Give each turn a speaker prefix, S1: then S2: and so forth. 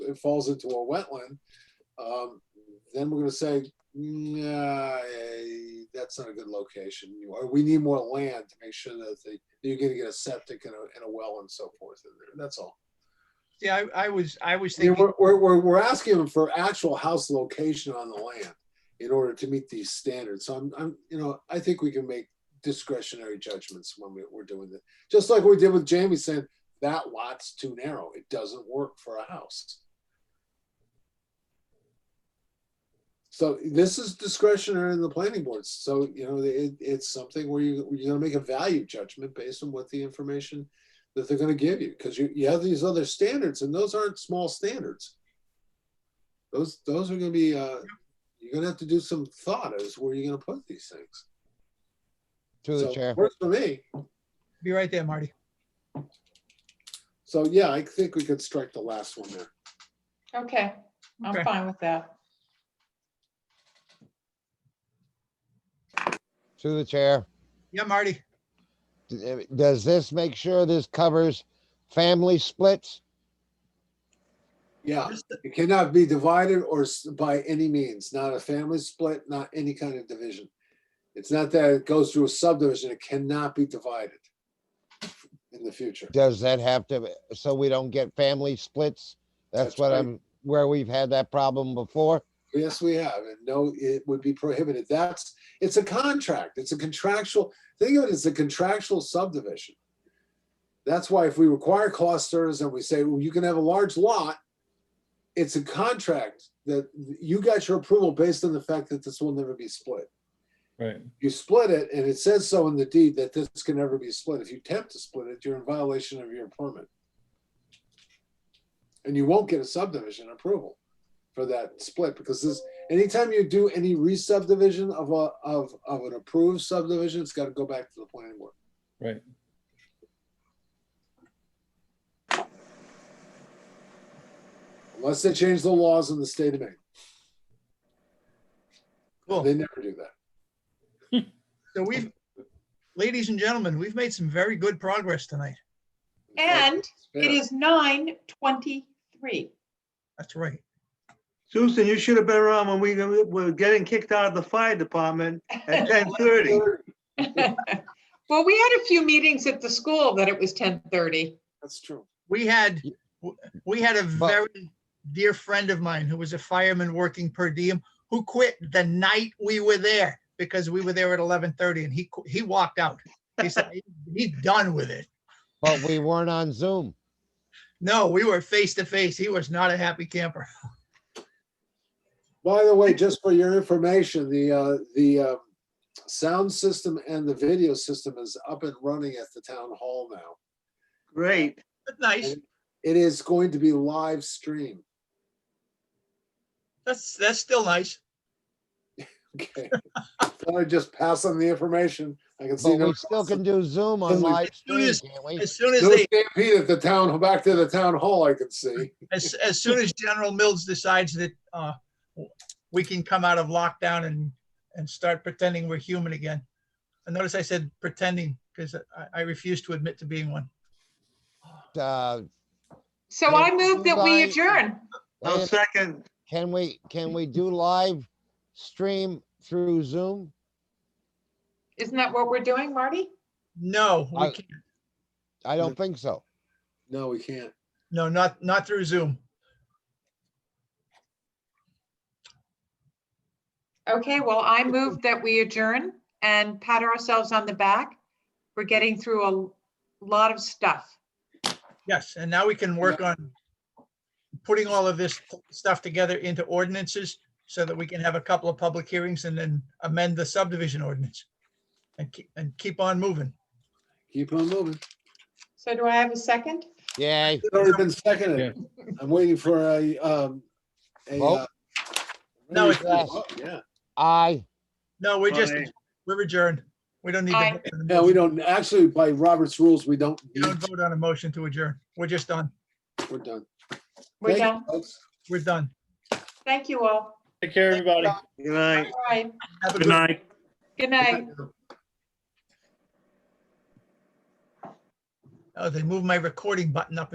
S1: it falls into a wetland, um, then we're gonna say, nah, eh, that's not a good location. You- Or we need more land to make sure that they, you're gonna get a septic and a, and a well and so forth in there. That's all.
S2: See, I, I was, I was
S1: I mean,
S2: thinking,
S1: we're, we're, we're, we're asking them for actual house location on the land in order to meet these standards. So I'm, I'm, you know, I think we can make discretionary judgments when we, we're doing it. Just like we did with Jamie saying, that lot's too narrow. It doesn't work for a house. So this is discretionary in the planning boards. So, you know, it, it's something where you, you're gonna make a value judgment based on what the information that they're going to give you because you, you have these other standards and those aren't small standards those those are going to be uh, you're going to have to do some thought as where you're going to put these things
S3: Through the
S1: So,
S3: chair.
S1: works for me
S2: be right there, Marty.
S1: so yeah i think we could strike the last one there
S4: Okay,
S2: Okay.
S4: I'm fine with that.
S3: Through the chair.
S2: Yeah, Marty,
S3: D- Does this make sure this covers family splits?
S1: yeah it cannot be divided or s- by any means not a family split not any kind of division it's not that it goes through a subdivision it cannot be divided in the future
S3: Does that have to, be- so we don't get family splits? That's
S1: That's
S3: what
S1: right.
S3: I'm, where we've had that problem before.
S1: Yes, we have, and no, it would be prohibited. That's, it's a contract, it's a contractual, think of it as a contractual subdivision. That's why if we require clusters and we say, well, you can have a large lot, it's a contract that you got your approval based on the fact that this will never be split.
S5: Right.
S1: You split it, and it says so in the deed that this can never be split. If you attempt to split it, you're in violation of your permit. And you won't get a subdivision approval for that split because this, anytime you do any re-subdivision of a, of, of an approved subdivision, it's gotta go back to the planning board.
S5: Right.
S1: Unless they change the laws in the state of Maine.
S2: Cool.
S1: They never do that.
S2: so we've, ladies and gentlemen, we've made some very good progress tonight.
S4: And
S1: Fair.
S4: it is nine twenty-three.
S2: That's right.
S6: Susan, you should have been around when we were getting kicked out of the fire department at ten thirty.
S4: Well, we had a few meetings at the school that it was ten thirty.
S1: That's true.
S2: We had, we had a
S3: But-
S2: very dear friend of mine who was a fireman working per diem who quit the night we were there because we were there at eleven thirty and he, qu- he walked out. He said, "He- he's done with it.
S3: But we weren't on Zoom.
S2: No, we were face to face. He was not a happy camper.
S1: By the way, just for your information, the, uh, the, uh, sound system and the video system is up and running at the town hall now.
S6: Great.
S2: That's nice.
S1: It is going to be live stream.
S2: That's, that's still nice.
S1: Okay. Thought I'd just pass on the information. I can see
S3: But
S1: no.
S3: we still can do Zoom on
S1: Zoom.
S3: live
S2: As soon
S3: stream,
S2: as-
S3: can't we?
S2: As soon as
S1: No
S2: they,
S1: stampede at the town, back to the town hall, I can see.
S2: as, as soon as General Mills decides that, uh, we can come out of lockdown and, and start pretending we're human again. And notice I said pretending, because I, I refuse to admit to being one.
S3: Uh,
S4: So
S3: Yeah,
S4: I move that we
S3: bye.
S4: adjourn.
S6: I'll second.
S3: Can we, can we do live stream through Zoom?
S4: Isn't that what we're doing, Marty?
S2: No, we
S3: I-
S2: can't.
S3: I don't think so.
S1: No, we can't.
S2: No, not, not through Zoom.
S4: Okay, well, I move that we adjourn and pat ourselves on the back. We're getting through a lot of stuff.
S2: Yes, and now we can work on putting all of this stuff together into ordinances so that we can have a couple of public hearings and then amend the subdivision ordinance. And keep, and keep on moving.
S1: Keep on moving.
S4: So do I have a second?
S3: Yay.
S1: It's already been seconded. I'm waiting for a, um, a.
S3: Vote?
S1: uh,
S2: No,
S1: ready for
S3: it's-
S1: a vote, Yeah,
S3: Aye.
S2: No, we're just,
S6: Aye.
S2: we're adjourned. We don't need
S4: Aye.
S2: to. vote on the
S1: yeah, we
S2: motion.
S1: don't, actually, by Robert's rules, we don't,
S2: We don't vote on a motion to adjourn. We're just done.
S1: we're done.
S4: We're
S1: Thank you,
S4: done.
S1: folks.
S2: We're done.
S4: Thank you all.
S5: Take care, everybody.
S6: Good night.
S4: All right,
S2: Have a
S6: Good night.
S4: good night.
S2: Oh, they moved my recording button up